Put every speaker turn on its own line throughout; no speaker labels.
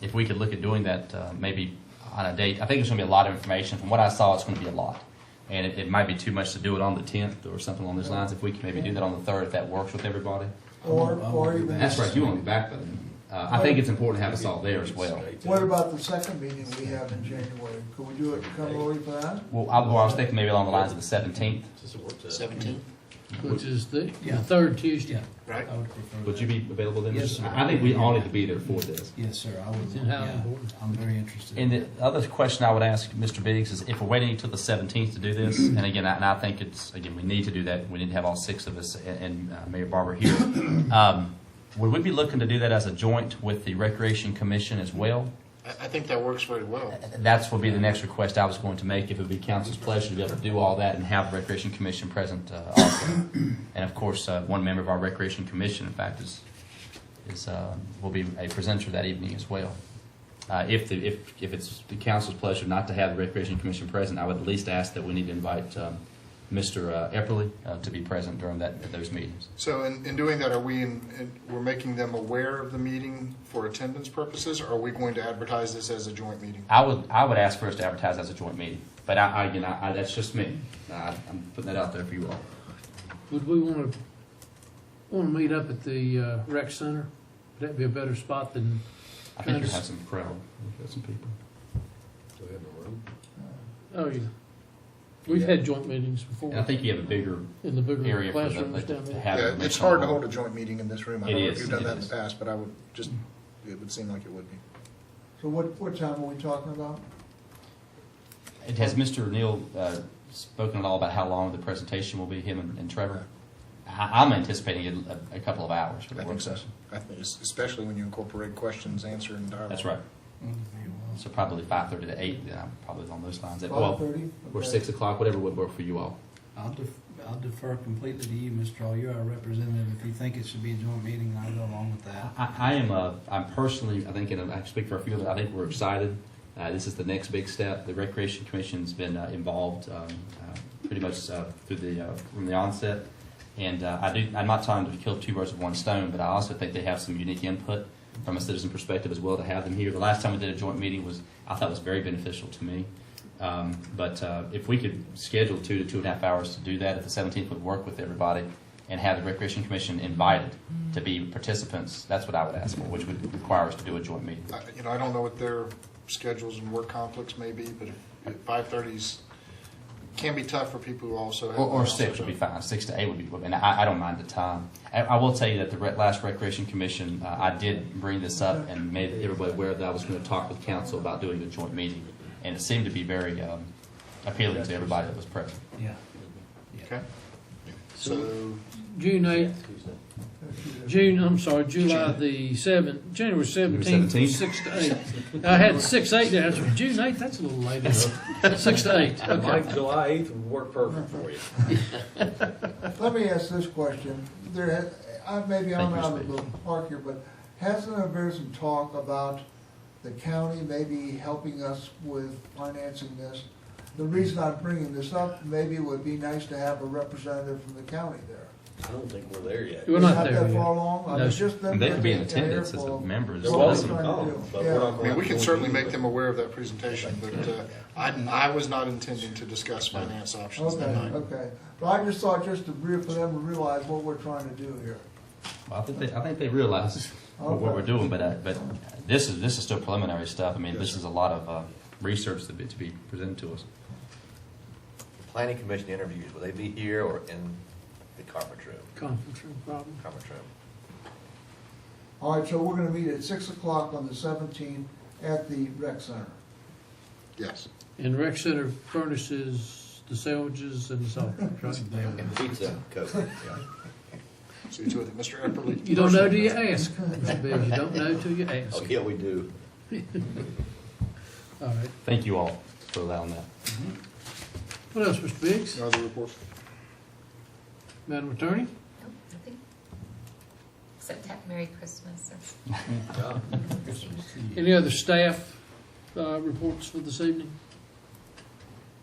if we could look at doing that, uh, maybe on a date, I think there's gonna be a lot of information. From what I saw, it's gonna be a lot. And it, it might be too much to do it on the tenth or something along those lines. If we could maybe do that on the third, if that works with everybody.
Or, or even.
That's right, you won't be back by then. Uh, I think it's important to have us all there as well.
What about the second meeting we have in January? Could we do it come early for that?
Well, I, well, I was thinking maybe along the lines of the seventeenth.
Seventeen?
Which is the, the
Yeah.
third Tuesday.
Right.
I would prefer
Would
that.
you be available then?
Yes, sir.
I I think we all need to be there for this.
Yes, sir, I would,
And how
yeah,
important.
I'm very interested.
And the other question I would ask Mr. Biggs is if we're waiting until the 17th to do this, and again, I- and I think it's, again, we need to do that, we need to have all six of us and- and uh, Mayor Barber here. Um, Would we be looking to do that as a joint with the Recreation Commission as well?
I, I think that works very well.
That's would be the next request I was going to make, if it would be council's pleasure to be able to do all that and have the Recreation Commission present uh, also. And of course, uh, one member of our Recreation Commission, in fact, is, is, uh, will be a presenter that evening as well. Uh, If, the if, if it's the council's pleasure not to have the Recreation Commission present, I would at least ask that we need to invite um, Mr. uh, Epperly uh, to be present during that, those meetings.
So in, in doing that, are we, in- in- we're making them aware of the meeting for attendance purposes? Or are we going to advertise this as a joint meeting?
I would, I would ask for us to advertise as a joint meeting, but I, I- again, I, I- that's just me. I- I'm putting that out there for you all.
Would we want to, want to meet up at the uh, rec center? Would that be a better spot than,
I think you have some crowd, you have some people.
oh, yeah. We've had joint meetings
And I
before
think you have a bigger
in the bigger
area for them
classrooms
like,
down
to
there.
have.
Yeah,
them
it's
on.
hard to hold a joint meeting in this room. I
It
don't know
is,
if you've done
it
that in
is.
the past, but I would just, it would seem like it would be.
So what, what time are we talking about?
And Has Mr. Neal uh, spoken at all about how long the presentation will be, him and- and Trevor? I- I'm anticipating uh, a- a couple of hours for the
I
work
think so.
session.
I think, es- especially when you incorporate questions, answer, and dialogue.
That's right.
Mm, very well.
So probably 5:30 to 8, then I'm probably on those lines.
Five
Well,
thirty?
or 6 o'clock, whatever would work for you all.
I'll def- I'll defer completely to you, Mr. Hall, you're our representative, if you think it should be a joint meeting, I'll go along with that.
I, I am, uh, I'm personally, I think, and I speak for a few of us, I think we're excited. Uh, this is the next big step. The Recreation Commission's been uh, involved um, uh, pretty much uh, through the, uh, from the onset. And uh, I do, I'm not trying to kill two birds with one stone, but I also think they have some unique input from a citizen perspective as well to have them here. The last time we did a joint meeting was, I thought was very beneficial to me. Um, but uh, if we could schedule two to two and a half hours to do that, if the 17th would work with everybody, and have the Recreation Commission invited to be participants, that's what I would ask for, which would require us to do a joint meeting.
I- You know, I don't know what their schedules and work conflicts may be, but if 5:30s can be tough for people who also have.
Or, or six would be fine, six to eight would be, and I, I don't mind the time. I, I will tell you that the re- last Recreation Commission, uh, I did bring this up and made everybody aware that I was gonna talk with council about doing a joint meeting, and it seemed to be very, um, appealing to everybody that was present.
Yeah.
Okay.
So
So,
June eighth, June, I'm sorry, July the seventh, January seventeenth, from
17th.
six to eight. I had six, eight there, That's- June eighth, that's a little later. Six to eight,
Oh
okay.
Like July 8th would work perfect for you.
Let me ask this question. There, has- I, maybe I'm
Thank you,
out of
Mr.
the park here, but hasn't there been some talk about the county maybe helping us with financing this? The reason I'm bringing this up, maybe it would be nice to have a representative from the county there.
I don't think we're there yet.
We're not
that
there
far
yet.
along? I
No,
mean,
sir.
just them
And they could be in
getting together
attendance as
for-
a member.
They're
Well,
That's-
welcome to come, but we're not
I
going
mean,
to.
we can certainly make them aware of that presentation, but uh, I, I was not intending to discuss finance options
Okay,
that night.
okay. Well, I just thought, just to, re- for them to realize what we're trying to do here.
Well, I think they, I think they realize what what we're doing, but, uh, but this is, this is still preliminary stuff. I mean, this is a lot of, uh, research to be, to be presented to us.
Planning commission interviews, will they be here or in the conference room?
Conference room problem.
Conference room.
All right, so we're gonna meet at six o'clock on the seventeenth at the rec center.
Yes.
And rec center furnishes the sandwiches and the soft drinks, right?
And pizza, Coke, yeah.
Oh,
So you do it, Mr. Epperly.
You don't know till you ask. Mr. Bill. You don't know till you ask.
Oh, yeah, we do.
All right.
Thank you all for allowing that.
What else, Mr. Biggs?
No other reports?
Madam Attorney?
Nope, nothing. Except have Merry Christmas. That's- Christmas Eve.
Any other staff uh, reports for this evening?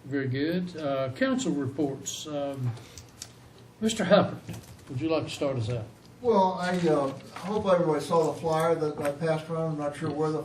Very good. Uh, Council reports. Um, Mr. Hubbard, would you like to start us out?
Well, I, uh, hope everybody saw the flyer that I passed around. I'm not sure where the